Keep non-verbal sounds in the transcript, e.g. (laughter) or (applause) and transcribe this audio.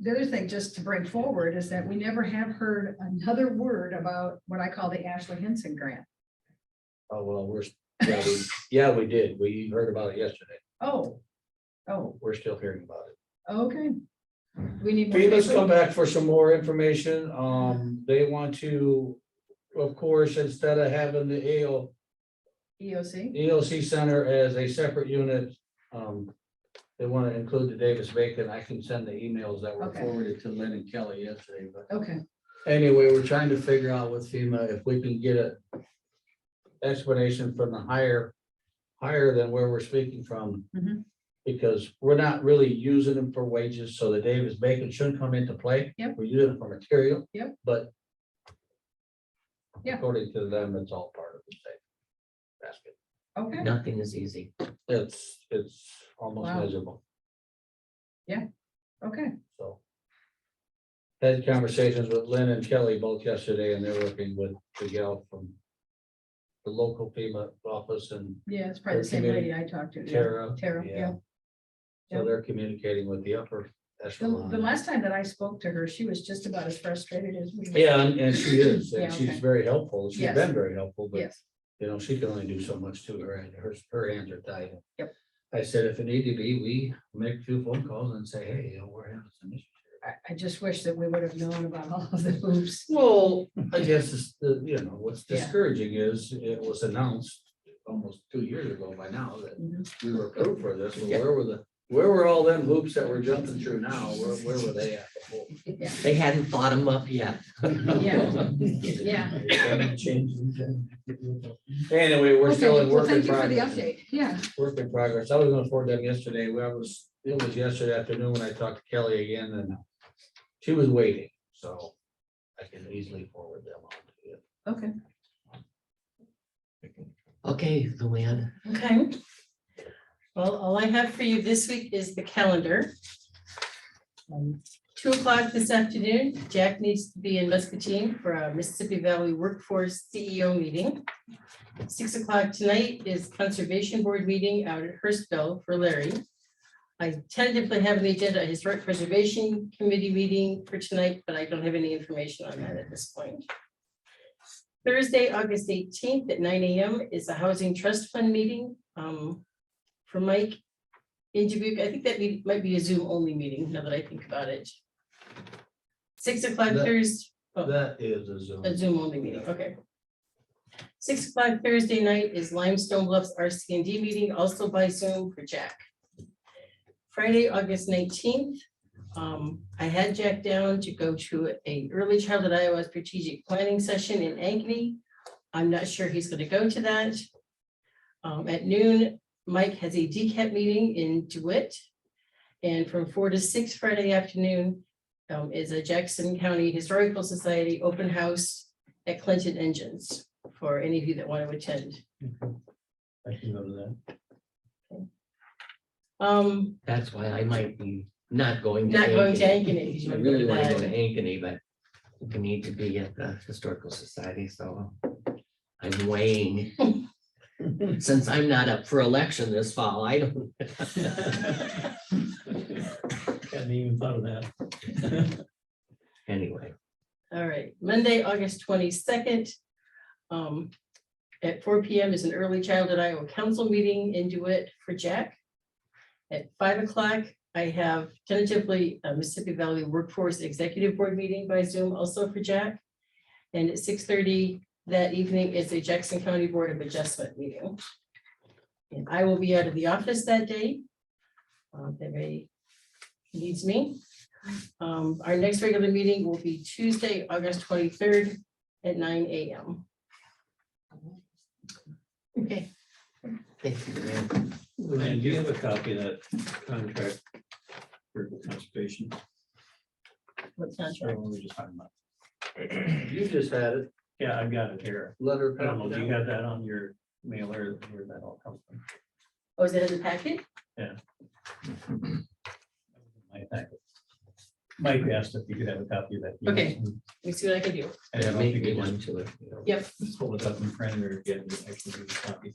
the other thing, just to bring forward, is that we never have heard another word about what I call the Ashley Henson Grant. Oh, well, we're, yeah, we, yeah, we did. We heard about it yesterday. Oh, oh, We're still hearing about it. okay. We need. more FEMA's people. come back for some more information. Um, they want to, of course, instead of having the AO, EOC, EOC E Center as a separate unit. um, They want to include the Davis Bacon. I can send the emails that were Okay. forwarded to Lynn and Kelly yesterday, but okay, anyway, we're trying to figure out with FEMA if we can get a explanation from the higher, higher than where we're speaking from. Mhm. Because we're not really using them for wages, so the Davis Bacon shouldn't come into play. Yep. We're using it for material. Yep. But Yeah. according to them, it's all part of the same basket. okay, Nothing is easy. It's, it's almost Wow. miserable, okay. so. Had conversations with Lynn and Kelly both yesterday, and they're working with the gal from the local FEMA office and Yeah, it's probably the Or same community- lady I talked to. yeah. Tara. Tara, yeah. So they're communicating with the upper The, echelon. the last time that I spoke to her, she was just about as frustrated as we. were. Yeah, and and she is, and Yeah, she's okay. very helpful. She's Yes. been very helpful, but Yes, you know, she can only do so much to her, and her, her hands are tied. Yep. I said, if it need to be, we make a few phone calls and say, hey, you know, we're having some issues. here." I, I just wish that we would have known about all of the hoops. Well, I guess it's the, you know, what's Yeah. discouraging is it was announced almost two years ago by now that Mhm. we were approved for this. Well, Yeah. Where were the, where were all them hoops that we're jumping through now? Where, where were they at? before? They hadn't thought them up yet. Yeah. (laughs) Yeah. Anyway, we're still Okay, in well, work in thank you for the progress. update. Yeah, Work in progress. I was gonna forward them yesterday. We- I was, it was yesterday afternoon when I talked to Kelly again and she was waiting, so I can easily forward them on to you. okay. Okay, Luann. Okay. Well, all I have for you this week is the calendar. Um, Two o'clock this afternoon, Jack needs to be in Muscatine for a Mississippi Valley Workforce CEO meeting. Six o'clock tonight is Conservation Board meeting out at Hurstville for Larry. I tentatively have on the agenda, a Historic Preservation Committee meeting for tonight, but I don't have any information on that at this point. Thursday, August eighteenth at nine AM is a Housing Trust Fund meeting um, for Mike. In Dubuque, I think that meet- might be a Zoom only meeting, now that I think about it. Six o'clock That- Thursday, That is a Zoom. a Zoom only meeting, okay. Six o'clock Thursday night is Limestone Bluffs RC and D meeting, also by Zoom for Jack. Friday, August nineteenth, um, I had Jack down to go to a early childhood Iowa strategic planning session in Ankeny. I'm not sure he's gonna go to that. Um, at noon, Mike has a DCAT meeting in DeWitt. And from four to six Friday afternoon, um, is a Jackson County Historical Society open house at Clinton Engines for any of you that want to attend. I can go to that. Um, That's why I might be not going. not going to Ankeny. Ankeny. 'cause I you wanna go really to want to go to that. Ankeny, but we need to be at the Historical Society, so I'm (laughs) weighing. Since I'm not up for election this fall, I don't. Hadn't even thought of that. (laughs) Anyway, All right, Monday, August twenty-second. Um, at four P M is an early childhood Iowa council meeting in DeWitt for Jack. At five o'clock, I have tentatively a Mississippi Valley Workforce Executive Board meeting by Zoom also for Jack. And at six thirty that evening is a Jackson County Board of Adjustment meeting. And I will be out of the office that day. Um, if anybody needs me. Um, our next regular meeting will be Tuesday, August twenty-third at nine AM. Okay, thank you, Luann. Luann, do you have a copy of that contract for the conservation? what's not Or sure. what were we just talking about? You just had it, Yeah, I've got it here. letter. I don't know, do you have that on your mailer, where that all comes from? Oh, is that in the packet? My packet. Mike asked if you could have a copy of that. Okay. Let me see what I can do. I don't know if Make you me could one to it. Yep, just pull it up in print or get an actual copy.